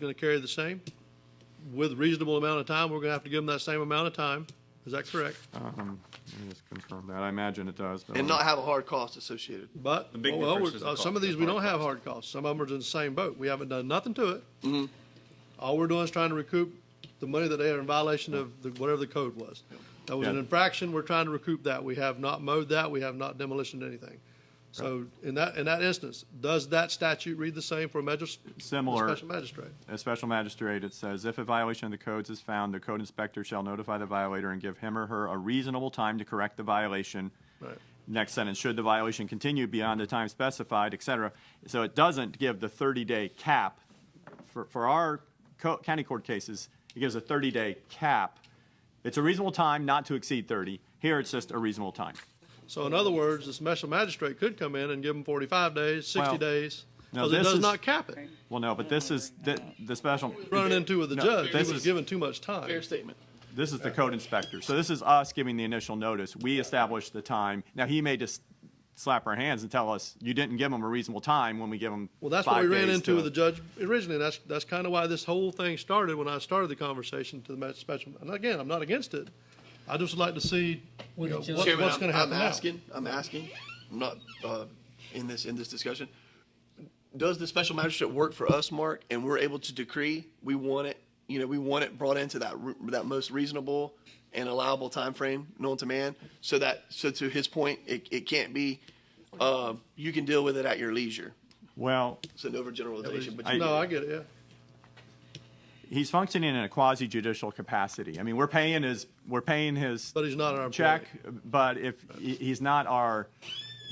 going to carry the same? With reasonable amount of time, we're going to have to give them that same amount of time. Is that correct? Uh, Um, Let me just confirm that. I imagine it does. but and let not have a hard cost associated. But, The big well, difference we're- is the uh, some of cost, these, the we hard don't have hard costs. Some of them are in the same boat. We haven't done nothing to it. Mm-hmm. All we're doing is trying to recoup the money that they are in violation of the- whatever the code was. That was an Yeah. infraction. We're trying to recoup that. We have not mowed that. We have not demolished anything. So in that, in that instance, does that statute read the same for a magis- a Similar. special magistrate? a special magistrate, it says, if a violation of the codes is found, the code inspector shall notify the violator and give him or her a reasonable time to correct the violation. Right. Next sentence, should the violation continue beyond the time specified, et cetera. So it doesn't give the 30-day cap. For, for our co- county court cases, it gives a 30-day cap. It's a reasonable time not to exceed 30. Here, it's just a reasonable time. So in other words, the special magistrate could come in and give them 45 days, 60 Well, days, now because it this does is- not cap it. Well, no, but this is, the, the special. Running into with the No, judge, he this was is- given too much time. Fair statement. This is the code inspector. So this is us giving the initial notice. We establish the time. Now, he may just slap our hands and tell us, you didn't give him a reasonable time when we give him Well, that's what five we ran days into to- with the judge originally. and That's, that's kind of why this whole thing started when I started the conversation to the ma- special. And again, I'm not against it. I just would like to see you know, what- Chairman, what's I'm- going to happen I'm now. asking. I'm asking. I'm not uh, in this in this discussion. Does the special magistrate work for us, Mark? And we're able to decree we want it. You know, we want it brought into that re- that most reasonable and allowable time frame known to man. So that so to his point, it, it can't be. Uh, you can deal with it at your leisure. Well, It's an overgeneralization, but you, No, I get it, yeah. he's functioning in a quasi judicial capacity. I mean, we're paying his, we're paying his But he's not our employee. check, but if, he- he's not our,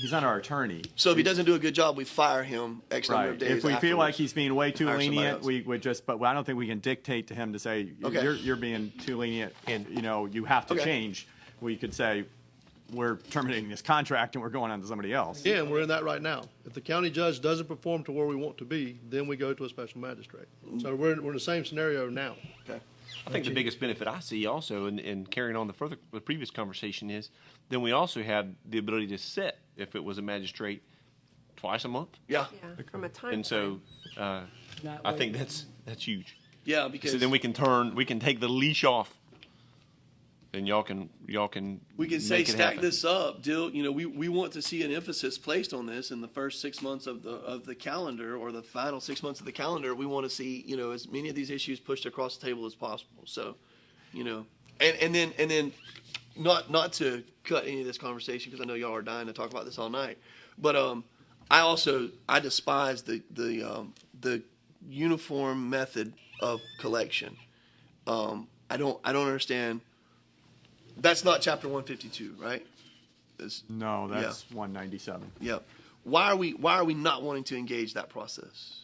he's not our attorney. so if he doesn't do a good job, we fire him X number of Right. days. If we feel like afterwards. he's being way too Hire somebody lenient, else. we would just, but I don't think we can dictate to him to say, Okay. you're, you're being too lenient, you know, you have to Okay. change. We could say, we're terminating this contract and we're going on to somebody else. Again, we're in that right now. If the county judge doesn't perform to where we want to be, then we go to a special magistrate. So we're, in- we're in the same scenario now. okay. I think the biggest benefit I see also in, in carrying on the further the previous conversation is then we also have the ability to set if it was a magistrate twice a month, yeah, Yeah, from a time. and so uh, Not I wait. think that's that's huge. yeah, because So then we can turn we can take the leash off, and y'all can y'all can We can say make it stack happen. this up, deal. You know, we, we want to see an emphasis placed on this in the first six months of the of the calendar or the final six months of the calendar. We want to see you know as many of these issues pushed across the table as possible. So, you know, and and then and then not not to cut any of this conversation because I know y'all are dying to talk about this all night, but um, I also I despise the the um, the uniform method of collection. Um, I don't I don't understand. That's not chapter 152, right? That's- No, that's one ninety-seven. Yep. Why are we why are we not wanting to engage that process?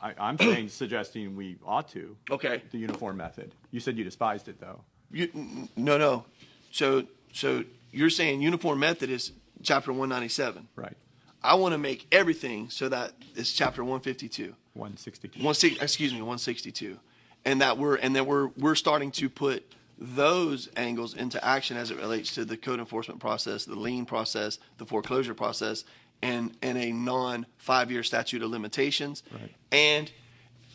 I, I'm saying, suggesting we ought to. Okay. The uniform method. You said you despised it though. You, n- no, no. So so you're saying uniform method is chapter 197. Right. I want to make everything so that it's chapter 152. One sixty-two. One six, excuse me, 162. And that we're and that we're we're starting to put those angles into action as it relates to the code enforcement process, the lien process, the foreclosure process, and and a non five year statute of limitations. Right. And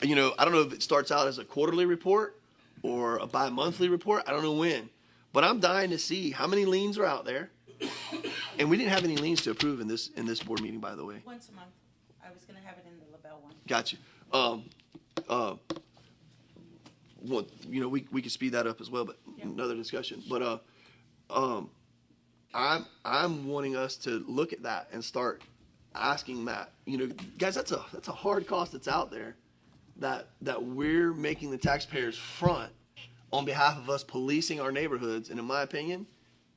you know, I don't know if it starts out as a quarterly report or a bi monthly report. I don't know when. But I'm dying to see how many liens are out there. and we didn't have any liens to approve in this in this board meeting, by the way. Once a month. I was gonna have it in the Labelle one. Got you. Um, uh, well, you know, we, we could speed that up as well, but another discussion. But uh, um, I'm I'm wanting us to look at that and start asking that. You know, guys, that's a that's a hard cost that's out there that that we're making the taxpayers front on behalf of us policing our neighborhoods. And in my opinion,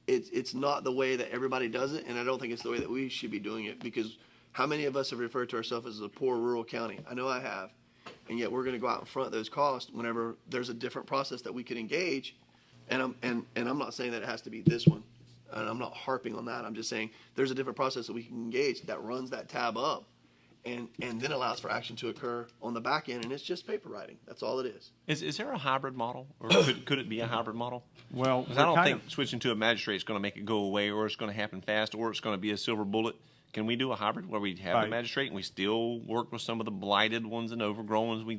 it's it's not the way that everybody does it, and I don't think it's the way that we should be doing it because how many of us have referred to ourselves as a poor rural county? I know I have, and yet we're going to go out in front of those costs whenever there's a different process that we could engage. And I'm and and I'm not saying that it has to be this one, and I'm not harping on that. I'm just saying there's a different process that we can engage that runs that tab up, and and then allows for action to occur on the back end, and it's just paper writing. That's all it is. Is, is there a hybrid model, or could, could it be a hybrid model? Well, 'Cause we're I don't kind think switching to a magistrate is going to make it go away, or it's going to happen fast, or it's going to be a silver bullet Can we do a hybrid where we have Right. the magistrate and we still work with some of the blighted ones and overgrown ones we